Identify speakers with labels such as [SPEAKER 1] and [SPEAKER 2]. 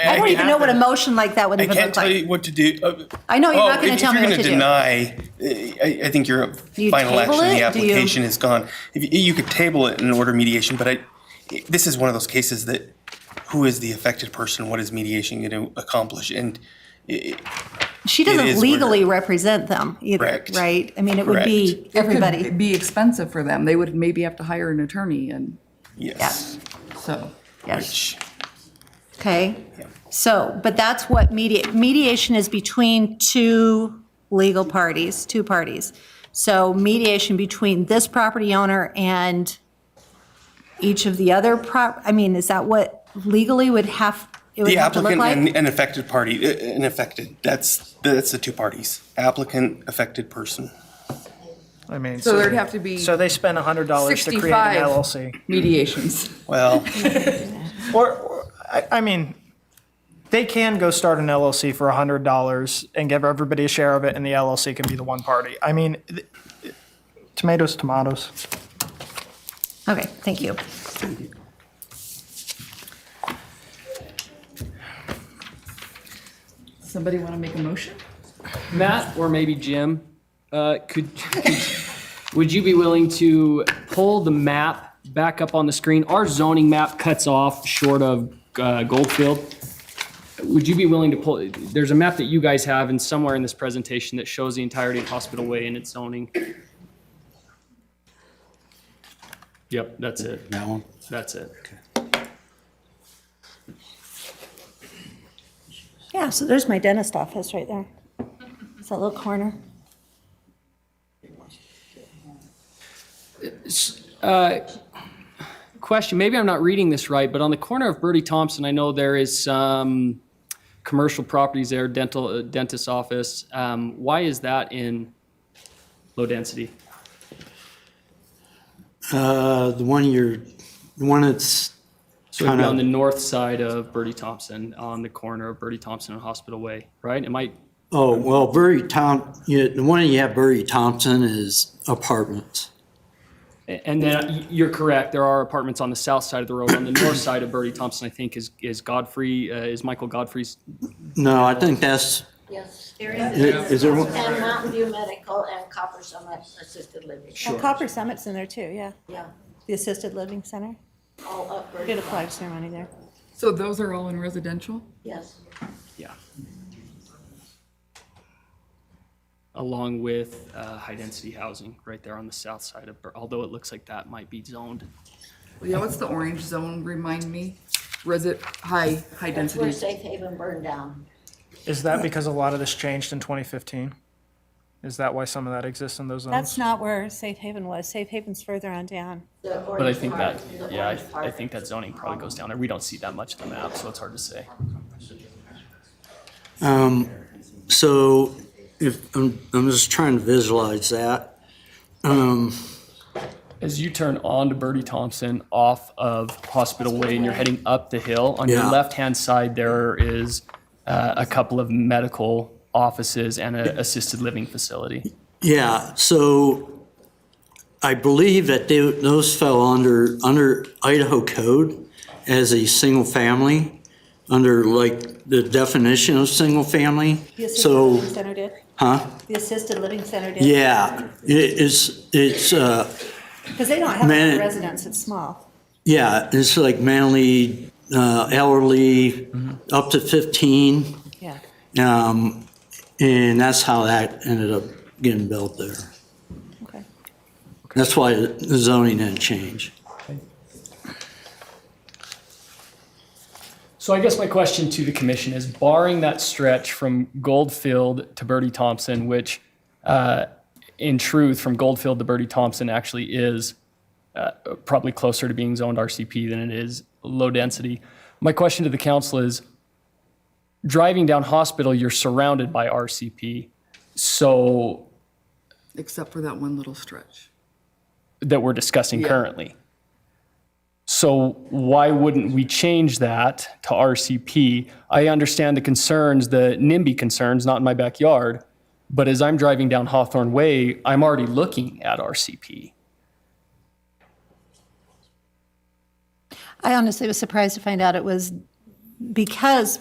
[SPEAKER 1] I don't even know what a motion like that would
[SPEAKER 2] I
[SPEAKER 1] even
[SPEAKER 2] can't
[SPEAKER 1] look
[SPEAKER 2] tell
[SPEAKER 1] like.
[SPEAKER 2] you what to do. Uh,
[SPEAKER 1] I know, you're
[SPEAKER 2] oh,
[SPEAKER 1] not gonna
[SPEAKER 2] if-
[SPEAKER 1] tell me what to do.
[SPEAKER 2] If you're going to deny, uh, I, I think your
[SPEAKER 1] you
[SPEAKER 2] final
[SPEAKER 1] table
[SPEAKER 2] action, the
[SPEAKER 1] it? Do you-
[SPEAKER 2] application is gone. If you, you could table it and order mediation, but I, this is one of those cases that who is the affected person? What is mediation going to accomplish? And
[SPEAKER 1] She
[SPEAKER 2] is
[SPEAKER 1] doesn't
[SPEAKER 2] what it-
[SPEAKER 1] legally represent them either,
[SPEAKER 2] Correct.
[SPEAKER 1] right? I mean, it would be
[SPEAKER 3] It
[SPEAKER 1] everybody.
[SPEAKER 3] could be expensive for them. They would maybe have to hire an attorney and
[SPEAKER 2] yes,
[SPEAKER 3] so.
[SPEAKER 1] Yes.
[SPEAKER 2] which
[SPEAKER 1] Okay, so, but that's what media, mediation is between two legal parties, two parties. So mediation between this property owner and each of the other prop, I mean, is that what legally would have, it would
[SPEAKER 2] the
[SPEAKER 1] have to look
[SPEAKER 2] applicant and,
[SPEAKER 1] like?
[SPEAKER 2] and affected party, uh, and affected. That's that's the two parties: applicant, affected person.
[SPEAKER 4] I mean,
[SPEAKER 3] So there'd have to be
[SPEAKER 4] So they spend hundred dollars to create an
[SPEAKER 3] 65.
[SPEAKER 4] LLC,
[SPEAKER 3] mediations.
[SPEAKER 2] Well,
[SPEAKER 4] or, or- I, I mean, they can go start an LLC for hundred dollars and give everybody a share of it, and the LLC can be the one party. I mean, th- tomatoes, tomatoes.
[SPEAKER 1] Okay, thank you.
[SPEAKER 3] Somebody want to make a motion?
[SPEAKER 5] Matt or maybe Jim, uh, could, could would you be willing to pull the map back up on the screen? Our zoning map cuts off short of uh, Goldfield. Would you be willing to pull? There's a map that you guys have, and somewhere in this presentation that shows the entirety of Hospital Way and its zoning. Yep, that's it.
[SPEAKER 6] That one?
[SPEAKER 5] That's it.
[SPEAKER 1] Yeah, so there's my dentist office right there. It's that little corner.
[SPEAKER 5] question. Maybe I'm not reading this right, but on the corner of Bertie Thompson, I know there is some commercial properties there, dental, uh, dentist's office. Um, why is that in low density?
[SPEAKER 6] Uh, the one you're, the one that's
[SPEAKER 5] So it'd
[SPEAKER 6] Kind
[SPEAKER 5] be
[SPEAKER 6] of-
[SPEAKER 5] on the north side of Bertie Thompson, on the corner of Bertie Thompson and Hospital Way, right? Am I,
[SPEAKER 6] Oh, well, Burry Tom, you, the one you have Burry Thompson is apartments.
[SPEAKER 5] and then y- you're correct, there are apartments on the south side of the road. On the north side of Bertie Thompson, I think is, is Godfrey, uh, is Michael Godfrey's
[SPEAKER 6] No, I think that's,
[SPEAKER 7] Yes, there is.
[SPEAKER 6] is is there one?
[SPEAKER 7] And Mountain View Medical and Copper Summit Assisted Living.
[SPEAKER 1] Copper Summit's in there too, yeah.
[SPEAKER 7] Yeah,
[SPEAKER 1] The assisted living center.
[SPEAKER 7] all up.
[SPEAKER 1] Did a flag ceremony there.
[SPEAKER 3] So those are all in residential?
[SPEAKER 7] Yes.
[SPEAKER 5] Yeah. Along with uh, high-density housing right there on the south side of, Bur- although it looks like that might be zoned.
[SPEAKER 3] Yeah, what's the orange zone? Remind me. Resi, high, high
[SPEAKER 7] That's where
[SPEAKER 3] density.
[SPEAKER 7] Safe Haven burned down.
[SPEAKER 4] Is that because a lot of this changed in 2015? Is that why some of that exists in those zones?
[SPEAKER 1] That's not where Safe Haven was. Safe Haven's further on down.
[SPEAKER 5] But I think that, yeah, I- I think that zoning probably goes down there. We don't see that much of the map, so it's hard to say.
[SPEAKER 6] Um, so if, I'm, I'm just trying to visualize that. Um,
[SPEAKER 5] As you turn onto Bertie Thompson off of Hospital Way and you're heading up the hill, on your
[SPEAKER 6] Yeah.
[SPEAKER 5] left-hand side, there is uh, a couple of medical offices and an assisted living facility.
[SPEAKER 6] yeah, so I believe that they, those fell under, under Idaho code as a single family, under like the definition of single family.
[SPEAKER 1] The assisted
[SPEAKER 6] So,
[SPEAKER 1] living center did.
[SPEAKER 6] huh?
[SPEAKER 1] The assisted living center did.
[SPEAKER 6] Yeah, it is, it's, uh,
[SPEAKER 1] Because they don't have
[SPEAKER 6] Man-
[SPEAKER 1] a residence, it's small.
[SPEAKER 6] yeah, it's like mentally, uh, elderly, up to 15.
[SPEAKER 1] Yeah.
[SPEAKER 6] Um, and that's how that ended up getting built there.
[SPEAKER 1] Okay.
[SPEAKER 6] That's why the zoning didn't change.
[SPEAKER 5] So I guess my question to the commission is barring that stretch from Goldfield to Bertie Thompson, which uh, in truth, from Goldfield to Bertie Thompson actually is uh, probably closer to being zoned RCP than it is low density. My question to the council is, driving down Hospital, you're surrounded by RCP, so
[SPEAKER 3] Except for that one little stretch.
[SPEAKER 5] that we're discussing currently. So why wouldn't we change that to RCP? I understand the concerns, the NIMBY concerns, not in my backyard, but as I'm driving down Hawthorne Way, I'm already looking at RCP.
[SPEAKER 1] I honestly was surprised to find out it was because